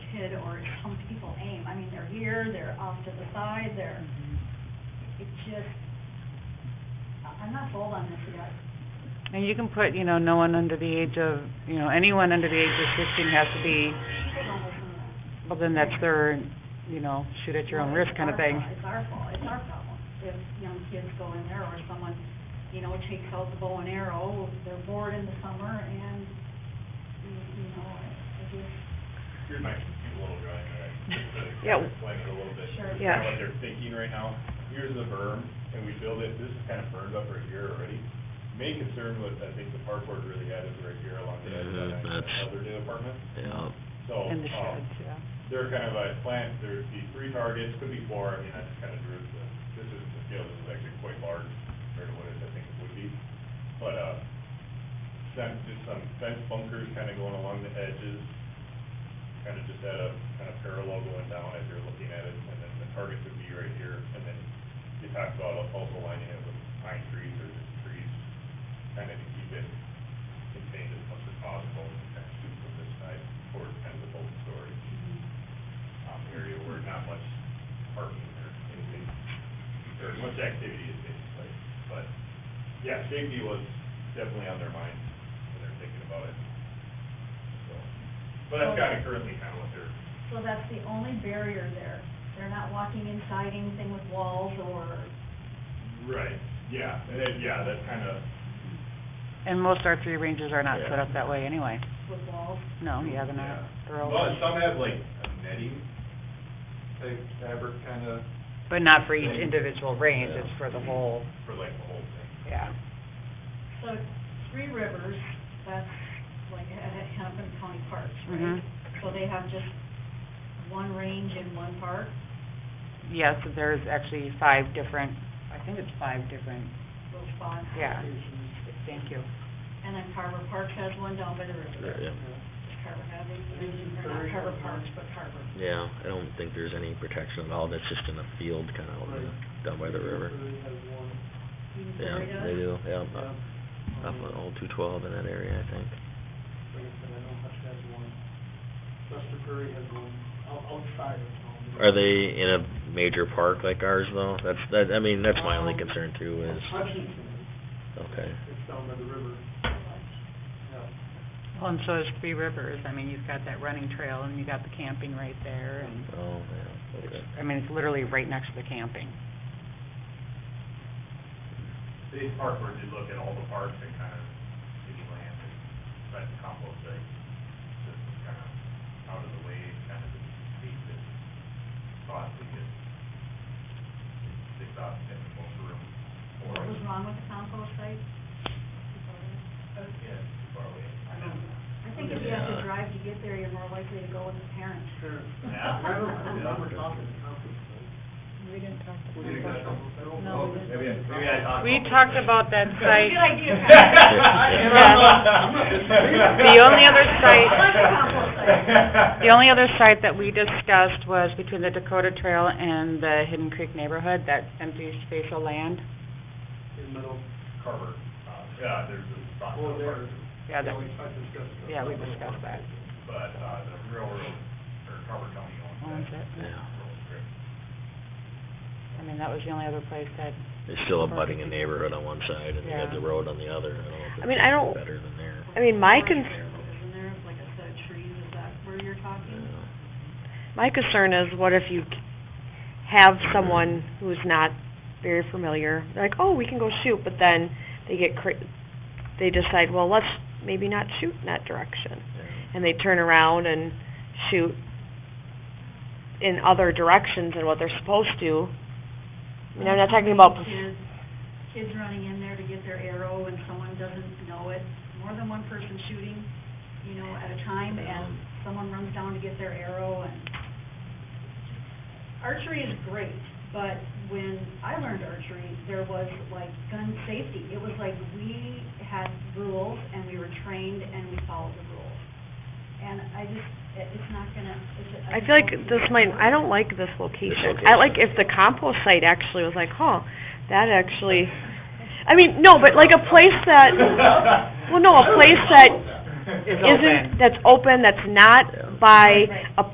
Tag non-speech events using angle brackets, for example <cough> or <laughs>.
pointed or some people aim. I mean, they're here, they're off to the side, they're, it just, I- I'm not sold on this yet. And you can put, you know, no one under the age of, you know, anyone under the age of fifteen has to be, People don't listen to us. well, then that's their, you know, shoot at your own risk kind of thing. It's our fault, it's our problem. If young kids go in there or someone, you know, takes out the bow and arrow, they're bored in the summer and, you- you know, I just, Here's my cute little drawing, all right? Just to Yeah. Explain it a little bit. Sure. Yeah. Kinda What they're thinking right now, here's the berm, and we build it, this is kind of burned up right here already. Main concern was, I think the park board really had is right here along the Yeah, edge of that- that that's- other new apartment. Yeah, So, And the um, sheds, yeah. they're kind of a plant, there'd be three targets, could be four, I mean, I just kind of drew it, to- this isn't the scale, this is actually quite large compared to what it, I think it would be. But, uh, some, just some fence bunkers kind of going along the edges, kind of just at a, kind of parallel going down as you're looking at it, and then the targets would be right here, and then you talked about also lining it with pine trees or just trees, kind of to keep it contained as much as possible, and kind of shoot from this side towards kind of the boat storage mm-hmm. um, area where not much parking or anything, or much activity is taking place. But, yeah, safety was definitely on their mind when they're thinking about it, so. But that's kind of currently kind of what they're, so that's the only barrier there. They're not walking inside anything with walls or right, yeah, and then, yeah, that's kind of, And most R three ranges are not set up that way anyway. with walls. No, yeah, they're not, Yeah. they're all, well, and some have like a netting, type fabric kind of, but not for each individual range, it's for the whole, for like the whole thing. yeah. So Three Rivers, that's like at at Hennepin County Parks, Mhm. Mm-hmm. right? So they have just one range in one park? Yes, there's actually five different, I think it's five different, little spots. yeah. Thank you. And then Carver Park has one down by the river. yeah, Does Carver have any, or not Carver Parks, but Carver. yeah, I don't think there's any protection at all, that's just in a field kind of out in the- down by the river. Even Yeah, Missouri does? they do, yeah, up- up on old two twelve in that area, I think. Lester Prairie has one, out- outside of town. Are they in a major park like ours though? That's, that, I mean, that's my only concern too is, Hutchinson, okay, it's down by the river, yeah. Well, and so is Three Rivers, I mean, you've got that running trail and you got the camping right there and, oh, yeah, okay. I mean, it's literally right next to the camping. They park where they look at all the parks and kind of city land and try to compost it, just kind of out of the way, kind of the space that spots to get picked up and most room for What it. was wrong with the compost site? Uh, Yeah, it's too far away. I don't know. I think if you have to Yeah. drive to get there, you're more likely to go with a parent. <laughs> Sure. Yeah. I don't, I don't remember talking to Conklin. We didn't talk We didn't have Conklin, I don't know. Maybe, I- maybe I talked. We talked about that site. Good idea, The only other site- The The only other site that we discussed was between the Dakota Trail and the Hidden Creek neighborhood, that empty space of land. In middle, Carver, uh, yeah, there's a spot. oh, there. Yeah, that, We tried to discuss that. yeah, we discussed that. But, uh, the railroad, or Carver County owns Owns that. it. Yeah. Railroad strip. I mean, that was the only other place that, It's still abutting a neighborhood on one side and you got Yeah. the road on the other, I don't know if I mean, I it's don't- better than there. I mean, my Isn't cons- there like a set of trees, is that where you're talking? Yeah. My concern is what if you have someone who's not very familiar, they're like, oh, we can go shoot, but then they get cra- they decide, well, let's maybe not shoot in that direction. Yeah. And they turn around and shoot in other directions than what they're supposed to. I mean, I'm not talking about, prof- Kids, kids running in there to get their arrow and someone doesn't know it, more than one person shooting, you know, at a time, and someone runs down to get their arrow and... Archery is great, but when I learned archery, there was like gun safety. It was like we had rules and we were trained and we followed the rules. And I just, it- it's not gonna, it's... I feel like this might, I don't like this location. I like if the compost site actually was like, huh, that actually, I mean, no, Oh, but like a place Oh, that, <laughs> well, no, a place that is open. isn't, that's open, that's not by a